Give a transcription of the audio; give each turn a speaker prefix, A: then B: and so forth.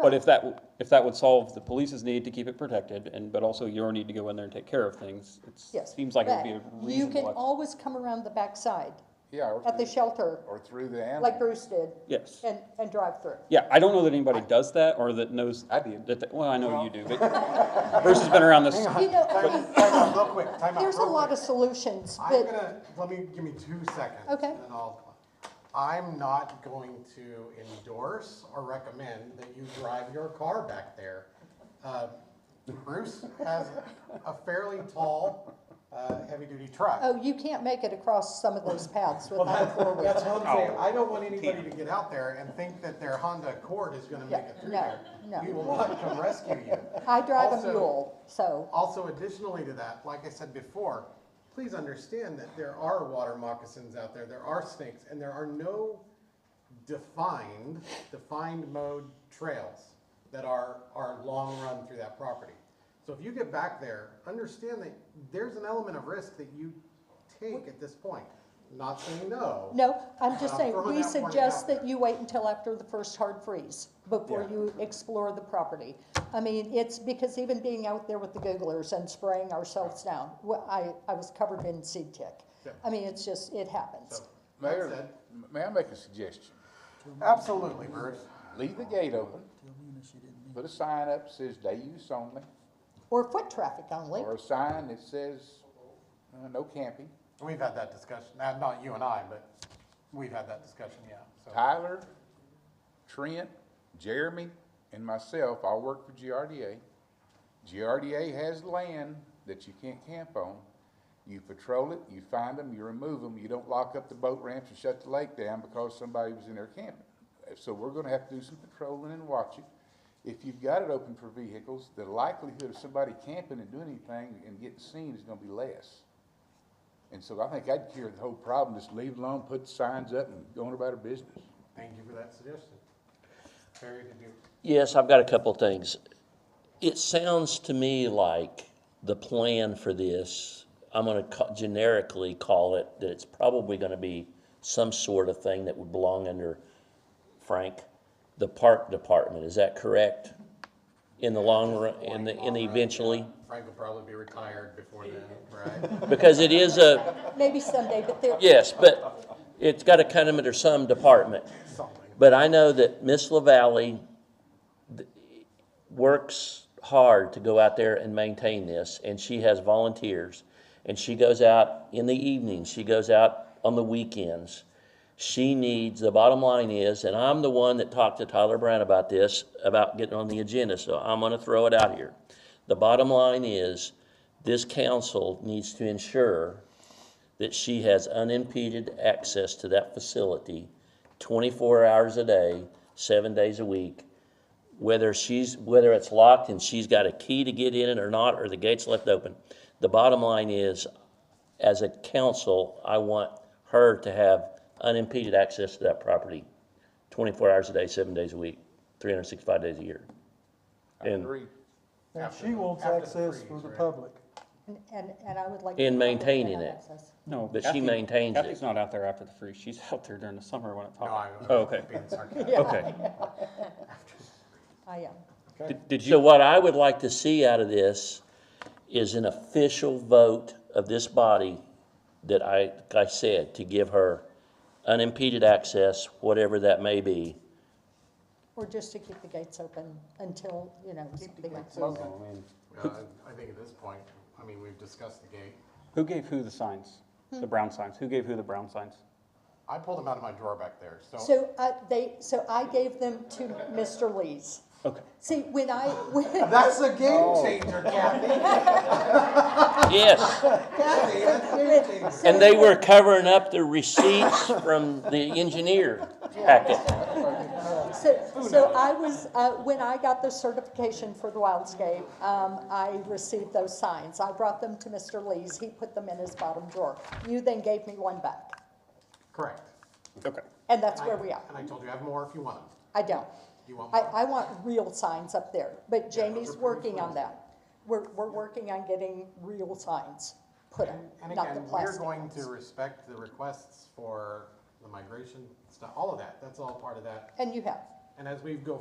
A: But if that, if that would solve the police's need to keep it protected and, but also your need to go in there and take care of things, it
B: Yes.
A: seems like it would be a
B: Right. You can
A: reasonable.
B: always come around the backside
C: Yeah, or
B: at the
C: through-
B: shelter,
C: Or through the animal.
B: like Bruce did,
A: Yes.
B: and, and drive through.
A: Yeah, I don't know that anybody does that or that knows.
C: I do.
A: that they- Well, I know you do, but Bruce has been around this.
B: You know, I
D: Time
B: mean,
D: out, time out, real quick, time out.
B: there's a
D: real
B: lot
D: quick.
B: of solutions,
D: I'm
B: but,
D: gonna, let me, give me two seconds.
B: Okay.
D: And I'll, I'm not going to endorse or recommend that you drive your car back there. Uh, Bruce has a fairly tall, uh, heavy-duty truck.
B: oh, you can't make it across some of those paths
D: Well,
B: without
D: that's,
B: four
D: that's
B: wheels.
D: what I'm saying, I don't want anybody to get out there and think that their Honda Accord is gonna make it through
B: Yeah,
D: there.
B: no, no.
D: We will not come rescue you.
B: I drive a
D: Also-
B: mule, so,
D: Also additionally to that, like I said before, please understand that there are water moccasins out there, there are snakes, and there are no defined, defined mode trails that are, are long run through that property. So if you get back there, understand that there's an element of risk that you take at this point. Not saying no.
B: no, I'm just
D: I'm
B: saying,
D: throwing
B: we
D: that one
B: suggest
D: out
B: that
D: there.
B: you wait until after the first hard freeze before
D: Yeah.
B: you explore the property. I mean, it's because even being out there with the Googlers and spraying ourselves down, wh- I, I was covered in seed tick.
D: Yeah.
B: I mean, it's just, it happens.
D: So, that
C: Mayor,
D: said,
C: m- may I make a suggestion?
D: Absolutely, Bruce.
C: Leave the gate open, put a sign up that says day use only,
B: Or foot traffic only.
C: or a sign that says, uh, no camping.
D: We've had that discussion, not, not you and I, but we've had that discussion, yeah, so.
C: Tyler, Trent, Jeremy, and myself, all work for GRDA. GRDA has land that you can't camp on. You patrol it, you find them, you remove them, you don't lock up the boat ramps and shut the lake down because somebody was in there camping. So we're gonna have to do some patrolling and watch it. If you've got it open for vehicles, the likelihood of somebody camping and doing anything and getting seen is gonna be less. And so I think I'd cure the whole problem, just leave it alone, put signs up and go on about our business.
D: Thank you for that suggestion. Very good. do.
E: Yes, I've got a couple of things. It sounds to me like the plan for this, I'm gonna ca- generically call it, that it's probably gonna be some sort of thing that would belong under, Frank, the park department, is that correct? In the long run, in the, in the eventually?
D: Frank will probably be retired before then, right?
E: Because it is a,
B: Maybe someday, but there,
E: Yes, but it's got to kind of under some department. But I know that Miss LaValley th- works hard to go out there and maintain this, and she has volunteers. And she goes out in the evenings, she goes out on the weekends. She needs, the bottom line is, and I'm the one that talked to Tyler Brown about this, about getting on the agenda, so I'm gonna throw it out here. The bottom line is, this council needs to ensure that she has unimpeded access to that facility 24 hours a day, seven days a week. Whether she's, whether it's locked and she's got a key to get in it or not, or the gate's left open. The bottom line is, as a council, I want her to have unimpeded access to that property 24 hours a day, seven days a week, 365 days a year.
C: I
E: And-
C: agree.
F: And she wants
D: after the
F: access for
D: freeze,
F: the
D: right?
F: public.
B: and, and I would like.
E: In
B: to know that they
E: maintaining
B: have
E: it.
B: access.
A: No,
E: But she
A: Kathy-
E: maintains it.
A: Kathy's not out there after the freeze. She's out there during the summer when it's
D: No,
A: hot.
D: I'm
A: Oh, okay.
D: being sarcastic.
A: Okay.
B: I am.
A: Did- Did
E: So
A: you,
E: what I would like to see out of this is an official vote of this body that I, like I said, to give her unimpeded access, whatever that may be.
B: Or just to keep the gates open until, you know, something like
D: Well,
B: that.
D: uh, I think at this point, I mean, we've discussed the gate.
A: who gave who the signs?
B: Hmm.
A: The brown signs? Who gave who the brown signs?
D: I pulled them out of my drawer back there, so
B: So, uh, they, so I gave them to Mr. Lees.
A: Okay.
B: See, when I, when,
D: that's a game
A: Oh.
D: changer, Kathy.
E: Yes,
D: Kathy, that's a game changer.
E: and they were covering up the receipts from the engineer packet.
B: so, so I was, uh, when I got the certification for the wildscape, um, I received those signs. I brought them to Mr. Lees. He put them in his bottom drawer. You then gave me one back,
D: Correct.
A: Okay.
B: and that's where we are.
D: And I told you I have more if you want them.
B: I don't.
D: You want
B: I,
D: more?
B: I want real signs up there, but Jamie's
D: pretty
B: working on
D: cool.
B: that. We're, we're working on getting real signs put up,
D: And
B: not the
D: again, we're
B: plastic
D: going
B: ones.
D: to respect the requests for the migration stuff, all of that. That's all part of that.
B: And you have.
D: And as we go